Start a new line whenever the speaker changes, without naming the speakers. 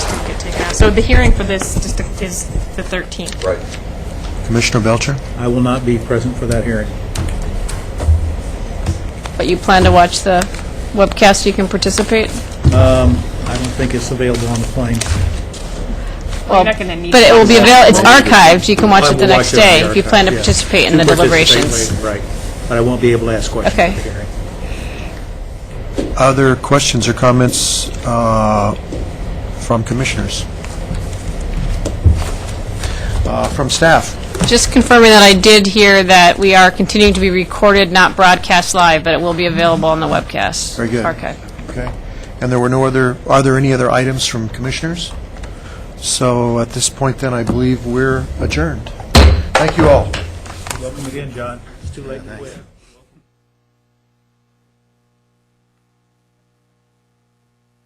So the hearing for this district is the 13th.
Right.
Commissioner Belcher?
I will not be present for that hearing.
But you plan to watch the webcast, you can participate?
I don't think it's available on the plane.
Well, you're not gonna need
But it will be
to.
avail, it's archived, you can watch
I
it the
will
next
watch it on
day if you
archive,
plan to
yeah.
participate in the
Participate
deliberations.
later, Right, but I won't be able to ask questions
Okay.
at the hearing.
Other questions or comments uh, from commissioners? Uh, From staff?
Just confirming that I did hear that we are continuing to be recorded, not broadcast live, but it will be available on the webcast.
Very good.
Archive.
Okay. And there were no other, are there any other items from commissioners? So at this point then, I believe we're adjourned. Thank you all.
Welcome again, John. It's too late to quit.